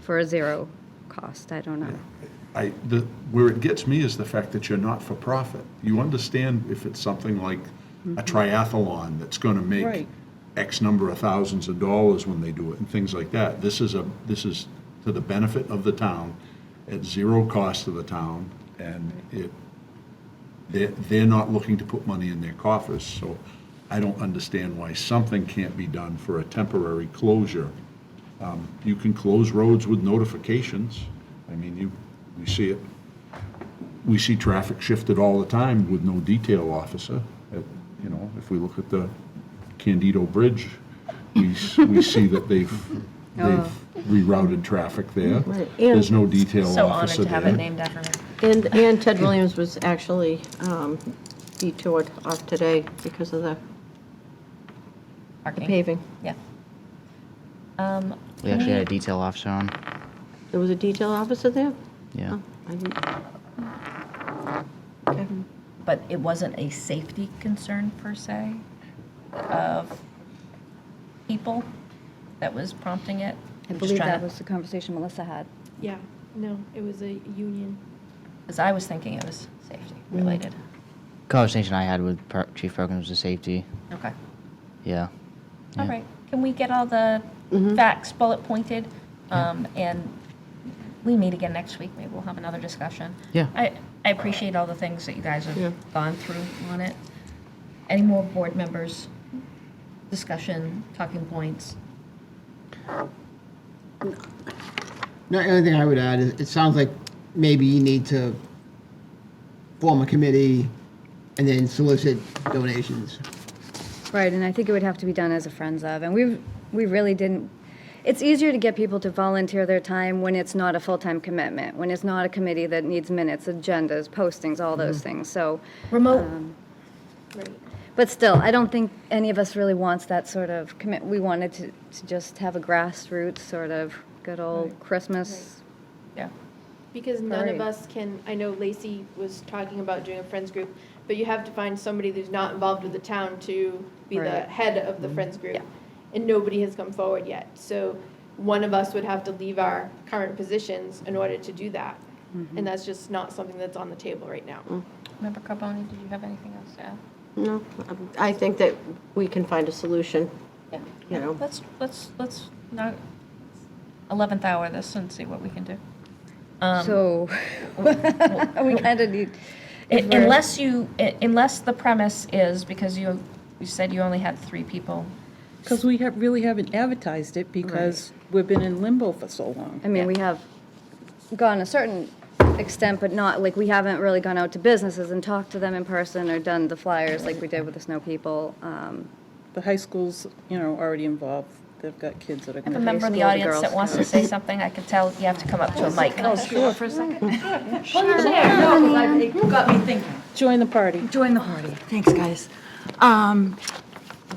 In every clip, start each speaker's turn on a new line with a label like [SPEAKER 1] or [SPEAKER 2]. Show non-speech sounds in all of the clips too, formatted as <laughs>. [SPEAKER 1] for a zero cost, I don't know.
[SPEAKER 2] I, the, where it gets me is the fact that you're not for profit. You understand if it's something like a triathlon that's gonna make
[SPEAKER 3] Right.
[SPEAKER 2] X number of thousands of dollars when they do it and things like that. This is a, this is to the benefit of the town, at zero cost to the town, and it, they're, they're not looking to put money in their coffers, so I don't understand why something can't be done for a temporary closure. Um, You can close roads with notifications. I mean, you, we see it, we see traffic shifted all the time with no detail officer. Uh, You know, if we look at the Candido Bridge, we, s- we see that they've, they've rerouted traffic there.
[SPEAKER 3] Right.
[SPEAKER 2] There's no detail
[SPEAKER 4] So honored
[SPEAKER 2] officer
[SPEAKER 4] to
[SPEAKER 2] there.
[SPEAKER 4] have it named after her.
[SPEAKER 3] And, and Ted Williams was actually um, detoured off today because of the the
[SPEAKER 4] Parking.
[SPEAKER 3] paving.
[SPEAKER 4] Yeah. Um,
[SPEAKER 5] We actually had a detail officer on.
[SPEAKER 3] There was a detail officer there?
[SPEAKER 5] Yeah.
[SPEAKER 3] Oh, I didn't. Okay.
[SPEAKER 4] But it wasn't a safety concern per se of people that was prompting
[SPEAKER 1] I
[SPEAKER 4] it? I'm just
[SPEAKER 1] believe
[SPEAKER 4] trying
[SPEAKER 1] that
[SPEAKER 4] to-
[SPEAKER 1] was the conversation Melissa had.
[SPEAKER 6] Yeah, no, it was a union.
[SPEAKER 4] Because I was thinking it was safety
[SPEAKER 1] Mm-hmm.
[SPEAKER 4] related.
[SPEAKER 5] Conversation I had with Per- Chief Perkins was safety.
[SPEAKER 4] Okay.
[SPEAKER 5] Yeah.
[SPEAKER 4] All
[SPEAKER 5] Yeah. Mm-hmm.
[SPEAKER 4] right. Can we get all the facts bullet pointed? Um, And we meet again next week. Maybe we'll have another discussion.
[SPEAKER 5] Yeah.
[SPEAKER 4] I, I appreciate all the things that you guys
[SPEAKER 3] Yeah.
[SPEAKER 4] have gone through on it. Any more board members, discussion, talking points?
[SPEAKER 7] No, The only thing I would add is, it sounds like maybe you need to form a committee and then solicit donations.
[SPEAKER 1] Right, and I think it would have to be done as a Friends of, and we, we really didn't, it's easier to get people to volunteer their time when it's not a full-time commitment, when it's not a committee that needs minutes, agendas, postings, all those
[SPEAKER 4] Mm-hmm.
[SPEAKER 1] things, so.
[SPEAKER 6] Oh.
[SPEAKER 1] Uh, um,
[SPEAKER 4] Remote.
[SPEAKER 6] Right.
[SPEAKER 1] But still, I don't think any of us really wants that sort of commit, we wanted to, to just have a grassroots sort of good old Christmas.
[SPEAKER 4] Yeah.
[SPEAKER 6] Because none
[SPEAKER 1] Right.
[SPEAKER 6] of us can, I know Lacey was talking about doing a friends group, but you have to find somebody who's not involved with the town to be the
[SPEAKER 1] Right.
[SPEAKER 6] head of the friends group. And nobody has come forward yet. So one of us would have to leave our current positions in order to do that. And that's just not something that's on the table right now.
[SPEAKER 4] Member Carboni, did you have anything else to add?
[SPEAKER 3] No, I think that we can find a solution.
[SPEAKER 4] Yeah.
[SPEAKER 3] You know.
[SPEAKER 4] Let's, let's, let's not, 11th hour this and see what we can do. Um,
[SPEAKER 1] So, <laughs> we kind of need.
[SPEAKER 4] I-
[SPEAKER 1] if we're-
[SPEAKER 4] Unless you, i- unless the premise is, because you, you said you only had three people.
[SPEAKER 8] Because we have, really haven't advertised it because we've been in limbo for so long.
[SPEAKER 1] I mean, we have gone a certain extent, but not, like, we haven't really gone out to businesses and talked to them in person or done the flyers like we did with the Snow People. Um,
[SPEAKER 8] The high school's, you know, already involved. They've got kids that are
[SPEAKER 4] I have a
[SPEAKER 8] going to.
[SPEAKER 4] member of the
[SPEAKER 1] School, the
[SPEAKER 4] audience that
[SPEAKER 1] Girls
[SPEAKER 4] wants to say something. I could tell you have to come up to a mic.
[SPEAKER 8] Join the party.
[SPEAKER 9] Join the party. Thanks, guys. Um,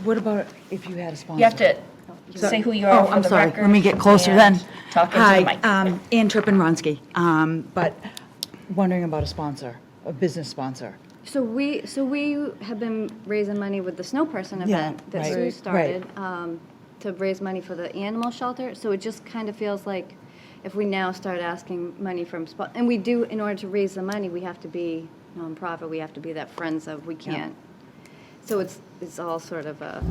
[SPEAKER 9] What about if you had a sponsor?
[SPEAKER 4] You have to say who you are
[SPEAKER 9] Oh,
[SPEAKER 4] for
[SPEAKER 9] I'm
[SPEAKER 4] the
[SPEAKER 9] sorry.
[SPEAKER 4] record.
[SPEAKER 9] Let me get closer then.
[SPEAKER 4] and Talk into the mic.
[SPEAKER 9] Hi, um, Ann Turpin-Ronsky, um, but wondering about a sponsor, a business sponsor.
[SPEAKER 1] So we, so we have been raising money with the Snow Person event that
[SPEAKER 9] right,
[SPEAKER 1] Sue
[SPEAKER 9] right.
[SPEAKER 1] started um, to raise money for the animal shelter. So it just kind of feels like if we now start asking money from, spo- and we do, in order to raise the money, we have to be nonprofit, we have to be that Friends of, we can't. So it's, it's all sort of a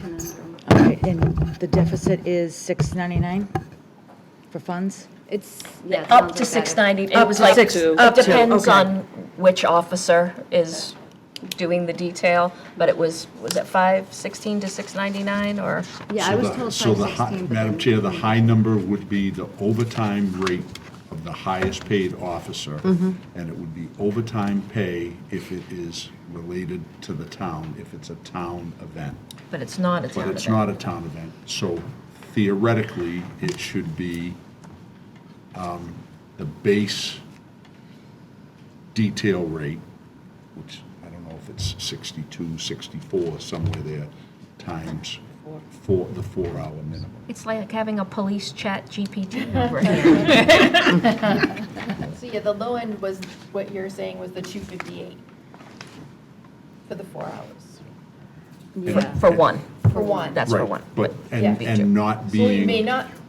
[SPEAKER 1] conundrum.
[SPEAKER 9] All right, and the deficit is 699 for funds?
[SPEAKER 1] It's, yeah. it
[SPEAKER 4] Up
[SPEAKER 1] sounds
[SPEAKER 4] to
[SPEAKER 1] like that.
[SPEAKER 4] 690. It
[SPEAKER 9] Up
[SPEAKER 4] was
[SPEAKER 9] to
[SPEAKER 4] like,
[SPEAKER 9] six-
[SPEAKER 4] it
[SPEAKER 9] up to,
[SPEAKER 4] depends
[SPEAKER 9] okay.
[SPEAKER 4] on which officer is doing the detail, but it was, was it 516 to 699 or?
[SPEAKER 1] Yeah,
[SPEAKER 2] So
[SPEAKER 1] I was
[SPEAKER 2] the-
[SPEAKER 1] told
[SPEAKER 2] so the hi-
[SPEAKER 1] 516. but
[SPEAKER 2] Madam
[SPEAKER 1] then-
[SPEAKER 2] Chair, the high number would be the overtime rate of the highest paid officer.
[SPEAKER 1] Mm-hmm.
[SPEAKER 2] And it would be overtime pay if it is related to the town, if it's a town event.
[SPEAKER 4] But it's not a town
[SPEAKER 2] But it's
[SPEAKER 4] event.
[SPEAKER 2] not a town event, so theoretically, it should be um, the base detail rate, which I don't know if it's 62, 64, somewhere there, times four, the four-hour minimum.
[SPEAKER 4] It's like having a police chat <laughs> GPT over here.
[SPEAKER 6] So yeah, the low end was, what you're saying was the 258 for the four hours,
[SPEAKER 4] For- For one.
[SPEAKER 6] for one.
[SPEAKER 4] That's for
[SPEAKER 2] Right,
[SPEAKER 4] one.
[SPEAKER 2] But,
[SPEAKER 4] yeah.
[SPEAKER 2] and,
[SPEAKER 4] Me too.
[SPEAKER 2] and not
[SPEAKER 6] So you may
[SPEAKER 2] being,
[SPEAKER 6] not